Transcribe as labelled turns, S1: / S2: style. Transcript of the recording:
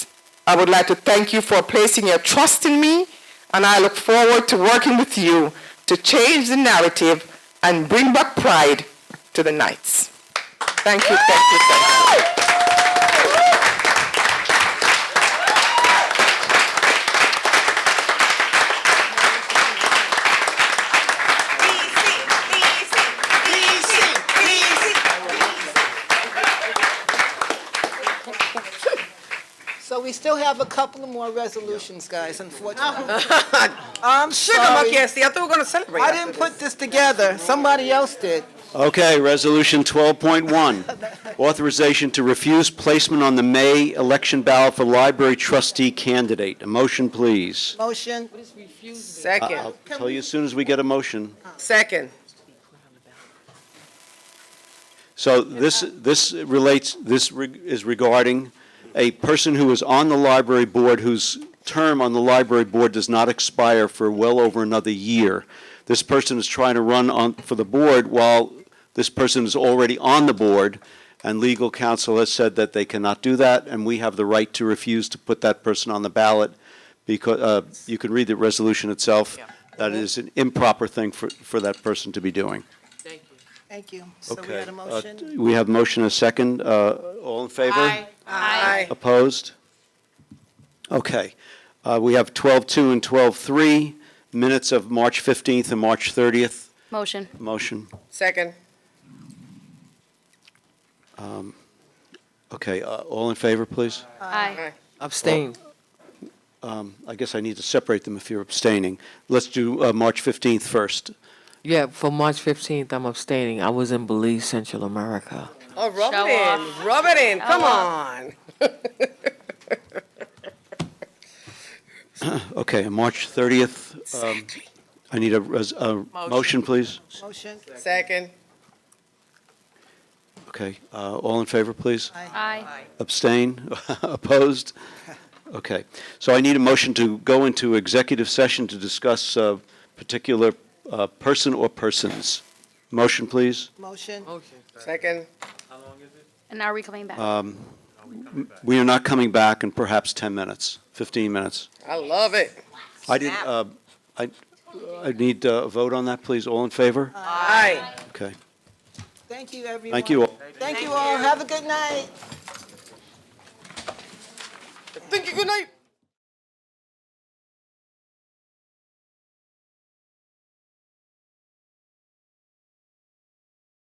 S1: I would like to thank you for placing your trust in me, and I look forward to working with you to change the narrative and bring back pride to the Knights. Thank you, thank you, thank you.
S2: So we still have a couple of more resolutions, guys, unfortunately.
S3: I'm Um, sugar
S2: Sorry.
S3: monkey ass. I thought we were going to celebrate.
S2: I didn't put this together, somebody else did.
S4: Okay, Resolution 12.1, authorization to refuse placement on the May election ballot for library trustee candidate. A motion, please.
S2: Motion,
S3: Second.
S4: I'll tell you as soon as we get a motion.
S3: Second.
S4: So this, this relates, this re- is regarding a person who is on the library board whose term on the library board does not expire for well over another year. This person is trying to run on, for the board while this person is already on the board, and legal counsel has said that they cannot do that, and we have the right to refuse to put that person on the ballot because, uh, you can read the resolution itself. That is an improper thing for, for that person to be doing.
S2: thank you. So we had a
S4: Uh,
S2: motion?
S4: We have motion and a second. Uh, All in favor?
S3: Aye.
S4: Opposed? Okay. Uh, We have 12-2 and 12-3, minutes of March 15th and March 30th.
S5: Motion.
S4: Motion.
S3: Second.
S4: Okay, uh, all in favor, please?
S5: Aye.
S3: Aye.
S6: Abstain.
S4: I guess I need to separate them if you're abstaining. Let's do uh, March 15th first.
S6: Yeah, for March 15th, I'm abstaining. I was in Belize, Central America.
S3: Oh, rub
S5: Show
S3: it in.
S5: off.
S3: Rub it in. Come
S5: Show
S3: on.
S4: Okay, and March 30th, um, I need a res- a motion, please?
S2: Motion?
S3: Second.
S4: Okay, uh, all in favor, please?
S5: Aye.
S4: Abstain? Opposed? Okay. So I need a motion to go into executive session to discuss a particular uh, person or persons. Motion, please.
S2: Motion?
S3: Second.
S5: And now we coming back.
S4: We are not coming back in perhaps 10 minutes, 15 minutes.
S3: I love it.
S4: I did, uh, I, I need uh, a vote on that, please. All in favor?
S3: Aye.
S4: Okay.
S2: Thank you, everyone.
S4: Thank you all.
S2: Thank you all, have a good night.
S3: Thank you. Good night.